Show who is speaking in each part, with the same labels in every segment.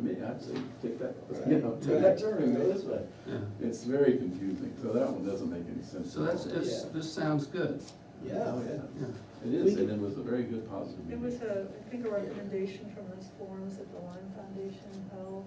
Speaker 1: me, I'd say, take that,
Speaker 2: Right.
Speaker 1: you know, take that turn and go this way.
Speaker 3: yeah.
Speaker 1: It's very confusing, so that one doesn't make any sense.
Speaker 3: So that's, it's,
Speaker 2: Yeah.
Speaker 3: this sounds good,
Speaker 1: Oh,
Speaker 2: Yeah,
Speaker 1: yeah,
Speaker 3: yeah.
Speaker 1: it
Speaker 2: We
Speaker 1: is,
Speaker 2: could-
Speaker 1: and it was a very good positive
Speaker 4: It
Speaker 1: meeting.
Speaker 4: was a, I think a recommendation from those forums that the Lime Foundation held.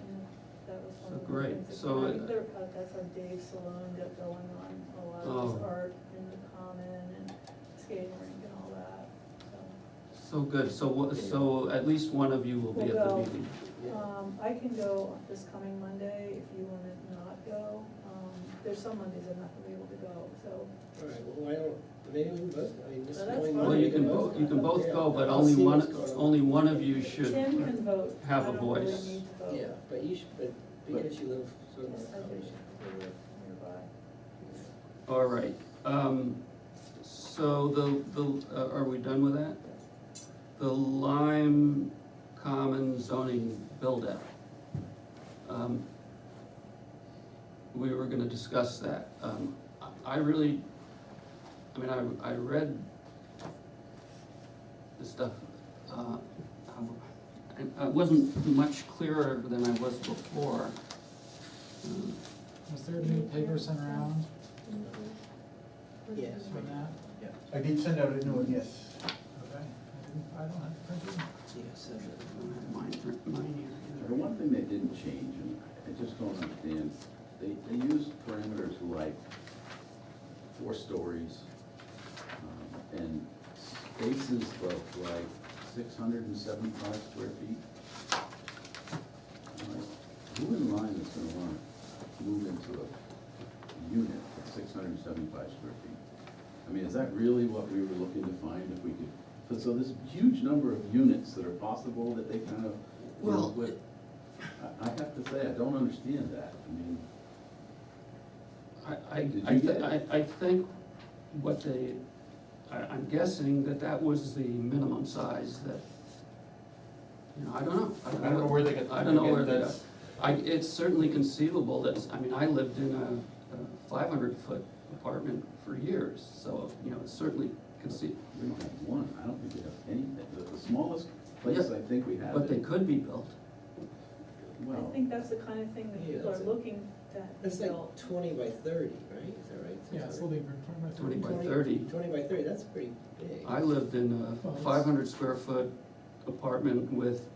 Speaker 4: and That was one of the
Speaker 3: Great.
Speaker 4: things that-
Speaker 3: So
Speaker 4: I
Speaker 3: it-
Speaker 4: think there- uh, That's on Dave's Saloon got going on a lot,
Speaker 3: Oh.
Speaker 4: there's art in the common and skating rink and all that, so.
Speaker 3: So good, so, wha- so at least one of you will be at the
Speaker 4: Well,
Speaker 3: meeting.
Speaker 2: yeah.
Speaker 4: Um, I can go this coming Monday if you wanna not go. Um, there's some Mondays I'm not gonna be able to go, so.
Speaker 2: All right, well, why don't, maybe we both, I mean, this
Speaker 4: Well, that's
Speaker 2: going.
Speaker 4: fine.
Speaker 3: Well, you can both, you can both go, but only one, only one of you should.
Speaker 4: Tim can vote.
Speaker 3: have a
Speaker 4: I don't really
Speaker 3: voice.
Speaker 4: need to vote.
Speaker 2: Oh, Yeah, but you should, but because you live sort of.
Speaker 4: Yes, I do.
Speaker 2: in
Speaker 4: We live nearby.
Speaker 3: All right, um, so the, the, uh, are we done with that? The Lime Common zoning buildup. Um, We were gonna discuss that. Um, I- I really, I mean, I, I read the stuff, uh, and I wasn't much clearer than I was before. Um,
Speaker 5: Was there new papers sent around
Speaker 2: Yes.
Speaker 5: for that?
Speaker 6: I did send out a new one, yes.
Speaker 5: Okay, I didn't, I don't have it printed.
Speaker 2: Yeah, so,
Speaker 3: I don't have mine, mine here.
Speaker 1: The one thing they didn't change, and I just don't understand, they, they used parameters like four stories, um, and spaces of like six hundred and seventy-five square feet. I'm like, Who in line is gonna wanna move into a unit at six hundred and seventy-five square feet? I mean, is that really what we were looking to find if we could, but so this huge number of units that are possible that they kind of
Speaker 3: Well,
Speaker 1: work with. I, I have to say, I don't understand that, I mean,
Speaker 3: I, I,
Speaker 1: Did
Speaker 3: I,
Speaker 1: you
Speaker 3: th-
Speaker 1: get
Speaker 3: I,
Speaker 1: it?
Speaker 3: I think what they, I, I'm guessing that that was the minimum size that, you know, I don't know.
Speaker 6: I don't know where they got-
Speaker 3: I don't know where
Speaker 6: again,
Speaker 3: they got.
Speaker 6: that's-
Speaker 3: I, it's certainly conceivable that, I mean, I lived in a, a five hundred foot apartment for years, so, you know, it's certainly conceiv,
Speaker 1: we don't have one, I don't think we have anything, the, the smallest place
Speaker 3: Yeah,
Speaker 1: I think we have.
Speaker 3: but they
Speaker 1: it-
Speaker 3: could be built.
Speaker 4: I
Speaker 1: Well,
Speaker 4: think that's the kind of thing that
Speaker 2: Yeah,
Speaker 4: people are
Speaker 2: that's it.
Speaker 4: looking at.
Speaker 2: it's
Speaker 4: built.
Speaker 2: like twenty by thirty, right? Is that right?
Speaker 5: Yeah, it's a little bit.
Speaker 3: Twenty by
Speaker 2: Twenty-
Speaker 3: thirty.
Speaker 2: Twenty by thirty, that's pretty big.
Speaker 3: I lived in
Speaker 5: Well,
Speaker 3: a
Speaker 5: it's-
Speaker 3: five hundred square foot apartment with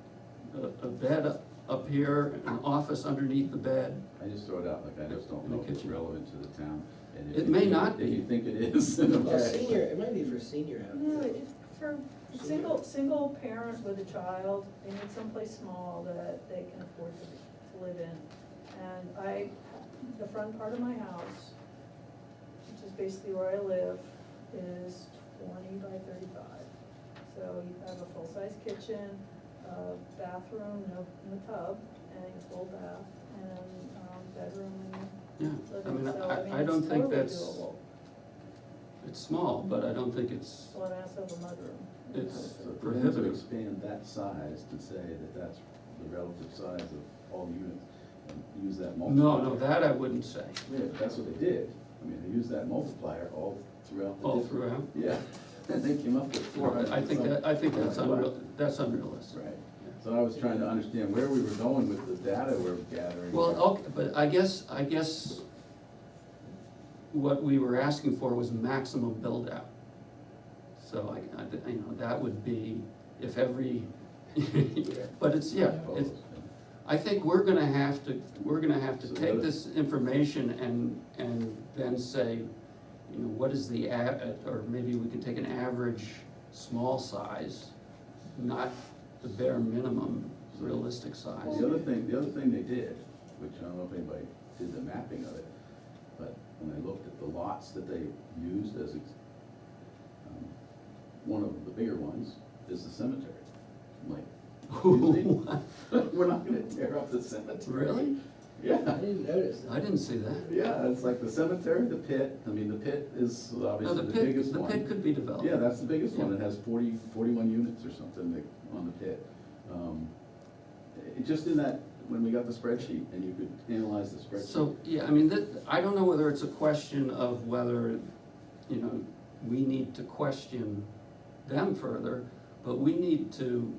Speaker 3: a, a bed up- up here, an office underneath the bed,
Speaker 1: I just throw it out, like, I just don't
Speaker 3: In the
Speaker 1: know if it's
Speaker 3: kitchen.
Speaker 1: relevant to the town. and if
Speaker 3: It
Speaker 1: you
Speaker 3: may
Speaker 1: think-
Speaker 3: not
Speaker 1: If
Speaker 3: be.
Speaker 1: you think it is, then
Speaker 2: Well,
Speaker 1: okay.
Speaker 2: senior, it might be for senior
Speaker 4: No,
Speaker 2: housing.
Speaker 4: it's for single, single parent with a child, they need someplace small that they can afford to, to live in. And I, the front part of my house, which is basically where I live, is twenty by thirty-five. So you have a full-size kitchen, a bathroom, no, no tub, and a full bath, and, um, bedroom
Speaker 3: yeah.
Speaker 4: and
Speaker 3: I mean,
Speaker 4: living, so I mean,
Speaker 3: I, I don't
Speaker 4: it's
Speaker 3: think
Speaker 4: totally
Speaker 3: that's,
Speaker 4: doable.
Speaker 3: it's small, but I don't think it's,
Speaker 4: Well, and I also have a mudroom.
Speaker 3: It's-
Speaker 1: So for them to
Speaker 3: Prohibitive.
Speaker 1: expand that size to say that that's the relative size of all units and use that
Speaker 3: no,
Speaker 1: multiplier.
Speaker 3: no, that I wouldn't say,
Speaker 1: Yeah, but that's what they did. I mean, they used that multiplier all throughout the.
Speaker 3: all
Speaker 1: different-
Speaker 3: throughout.
Speaker 1: Yeah, and they came up with four hundred.
Speaker 3: I think that, I think that's unreal, that's unrealistic.
Speaker 1: Right, so I was trying to understand where we were going with the data we're gathering.
Speaker 3: Well, oh, okay, but I guess, I guess what we were asking for was maximum build-out. So I, I, you know, that would be if every, but it's, yeah, it's, I think we're gonna have to, we're gonna have to
Speaker 1: So
Speaker 3: take
Speaker 1: that-
Speaker 3: this information and, and then say, you know, what is the a, or maybe we can take an average small size, not the bare minimum realistic size.
Speaker 1: The other thing, the other thing they did, which I don't know if anybody did the mapping of it, but when I looked at the lots that they used as, ex- um, one of the bigger ones is the cemetery. I'm like, excuse me? we're not gonna tear up the cemetery.
Speaker 3: Really?
Speaker 1: Yeah.
Speaker 2: I didn't notice that.
Speaker 3: I didn't see that.
Speaker 1: Yeah, it's like the cemetery, the pit, I mean, the pit is
Speaker 3: No, Oh, the
Speaker 1: obviously the
Speaker 3: pit,
Speaker 1: biggest
Speaker 3: the
Speaker 1: one.
Speaker 3: pit could be developed.
Speaker 1: Yeah, that's the biggest one,
Speaker 3: Yeah.
Speaker 1: it has 40 41 units or something that, on the pit. Um, it- Just in that, when we got the spreadsheet, and you could analyze the spreadsheet.
Speaker 3: So, yeah, I mean, that, I don't know whether it's a question of whether, you know, we need to question them further, but we need to